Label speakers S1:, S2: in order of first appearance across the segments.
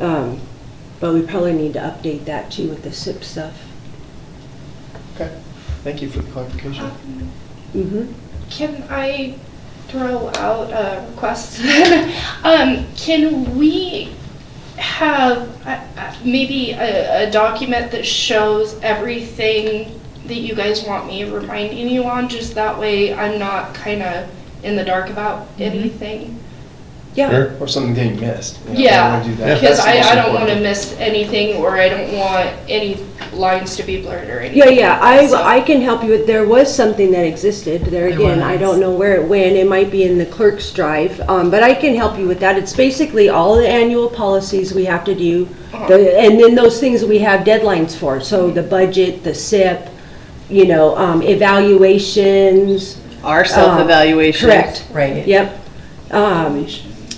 S1: Um, But we probably need to update that too with the SIP stuff.
S2: Okay, thank you for the clarification.
S1: Mm-hmm.
S3: Um, Can I throw out a request? um, can we have uh, uh, maybe a, a document that shows everything that you guys want me reminding you on? Just that way I'm not kind of in the dark about
S1: Mm-hmm.
S3: anything.
S1: Yeah,
S2: Or something that you missed. you know, I
S3: Yeah.
S2: don't wanna do that.
S3: Because
S2: That's the
S3: I,
S2: most
S3: I don't want
S2: important.
S3: to miss anything or I don't want any lines to be blurred or anything.
S1: yeah, yeah,
S3: So-
S1: I, I can help you with, there was something that existed, there
S4: There
S1: again, I
S4: was.
S1: don't know where it went, it might be in the clerk's drive, um, but I can help you with that, it's basically all the annual policies we have to do, the- and then those things that we have deadlines for, so the budget, the SIP, you know, um, evaluations,
S5: Our self-evaluation.
S1: correct,
S4: Right.
S1: yep. Um,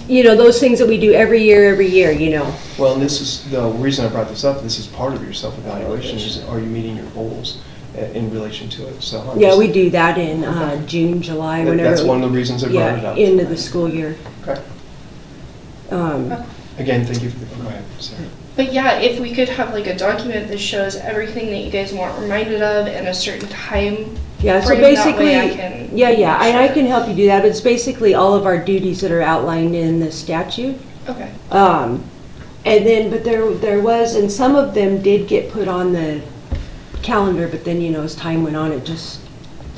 S1: you know, those things that we do every year, every year, you know,
S2: Well, and this is, the reason I brought this up, this is part of your self-evaluation, is are you meeting your goals uh, in relation to it, so. I'm
S1: yeah,
S2: just-
S1: we do that in, uh, June, July,
S2: that-
S1: whenever.
S2: That's one of the reasons I brought it
S1: Yeah,
S2: up.
S1: end of the school year.
S2: Okay.
S1: Um,
S3: Okay.
S2: Again, thank you for the, go ahead, sorry.
S3: But yeah, if we could have like a document that shows everything that you guys want reminded of and a certain time.
S1: Yeah, so
S3: frame, that
S1: basically,
S3: way I can
S1: yeah, yeah, and I
S3: Sure.
S1: can help you do that, but it's basically all of our duties that are outlined in the statute.
S3: Okay.
S1: Um, And then, but there, there was, and some of them did get put on the calendar, but then, you know, as time went on, it just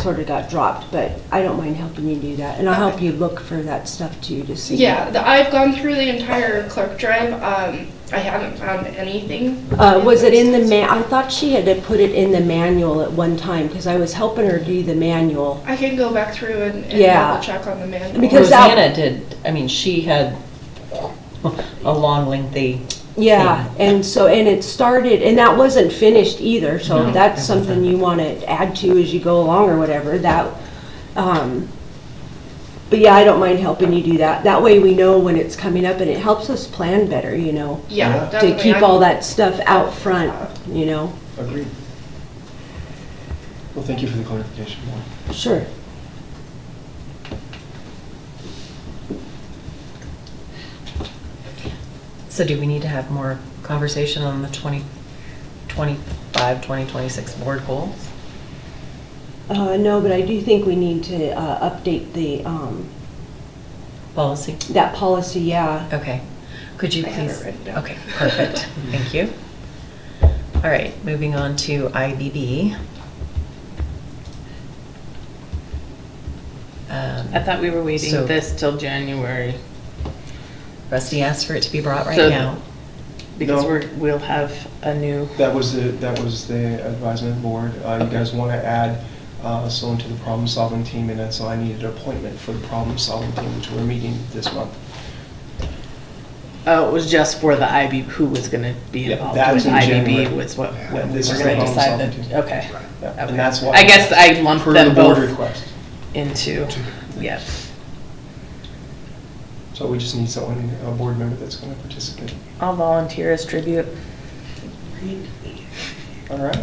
S1: sort of got dropped, but I don't mind helping you do that, and I'll help you look for that stuff too, to see.
S3: Yeah, the, I've gone through the entire clerk drive. Um, I haven't found anything.
S1: Uh, was it in the ma, I thought she had to put it in the manual at one time, because I was helping her do the manual.
S3: I can go back through and, and
S1: Yeah.
S3: double check on the manual.
S1: Because that-
S4: Rosanna did, I mean, she had a long lengthy,
S1: Yeah, and so, and it started, and that wasn't finished either, so
S4: No,
S1: if that's
S4: it wasn't.
S1: something you want to add to as you go along or whatever, that, um, but yeah, I don't mind helping you do that. That way we know when it's coming up and it helps us plan better, you know,
S2: Yeah.
S3: yeah,
S2: To
S1: to
S3: definitely.
S1: keep
S3: I'm-
S1: all that stuff out front, you know?
S2: Agreed. Well, thank you for the clarification, Lauren.
S1: Sure.
S4: so do we need to have more conversation on the 2025, 2026 board goals?
S1: Uh, no, but I do think we need to, uh, update the, um,
S4: Policy?
S1: that policy, yeah.
S4: Okay. Could you
S3: I have it
S4: please?
S3: written down.
S4: Okay, perfect. Thank you. All right, moving on to IBB. Um,
S5: I thought we were
S4: So-
S5: waiting this till January,
S4: Um, Rusty asked for it to be brought right
S5: So-
S4: now.
S5: because
S2: No.
S5: we're, we'll have a new,
S2: That was the, that was the advisement board. Uh, You guys want to add uh, someone to the problem-solving team, and that's so I needed an appointment for the problem-solving team, which we're meeting this month.
S5: oh, it was just for the IB, who was gonna be
S2: Yeah,
S5: involved
S2: that's
S5: with
S2: in
S5: IBB
S2: January.
S5: was what,
S2: Yeah,
S5: when we were
S2: this is
S5: gonna
S2: the
S5: decide
S2: problem solving
S5: that, okay.
S2: Yeah,
S5: Okay.
S2: And that's why.
S5: I guess I lumped
S2: Per
S5: them
S2: the board
S5: both.
S2: request.
S5: Into, yeah,
S2: So we just need someone, a board member that's going to participate.
S5: I'll volunteer as tribute.
S2: All right.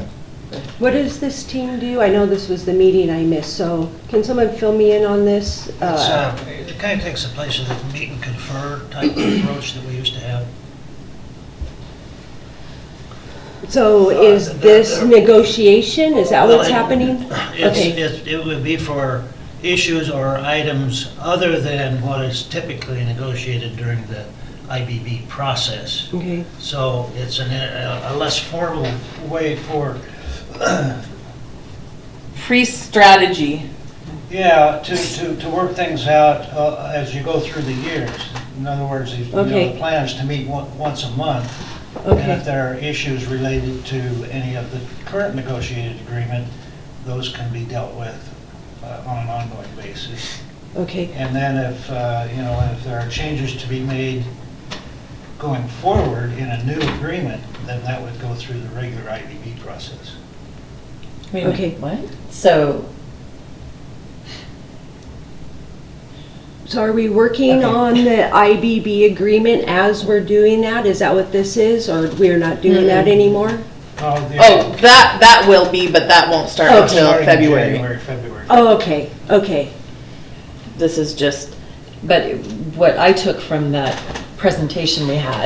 S1: What does this team do? I know this was the meeting I missed, so can someone fill me in on this?
S6: It's, uh, it kind of takes the place of the meet and confer type approach that we used to have.
S1: So is this negotiation, is that what's happening?
S6: It's,
S1: Okay.
S6: it's- it would be for issues or items other than what is typically negotiated during the IBB process.
S1: Okay,
S6: So it's an, a a less formal way for,
S5: Pre-strategy,
S6: yeah, to, to, to work things out uh, as you go through the years. In other words, you know,
S1: Okay.
S6: the plan is to meet on- once a month. And if
S1: okay,
S6: there are issues related to any of the current negotiated agreement, those can be dealt with uh, on an ongoing basis.
S1: okay,
S6: And then if, uh, you know, if there are changes to be made going forward in a new agreement, then that would go through the regular IDB process.
S4: Wait a minute,
S1: Okay.
S4: What? So,
S1: so are we working on the IBB agreement as we're doing that? Is that what this is, or we're not doing that anymore?
S6: the-
S5: oh, that, that will be, but that won't start
S1: Oh,
S5: until
S6: starting in
S5: February.
S6: January, February.
S1: Oh, okay, okay,
S5: This is just
S4: but what I took from that presentation we had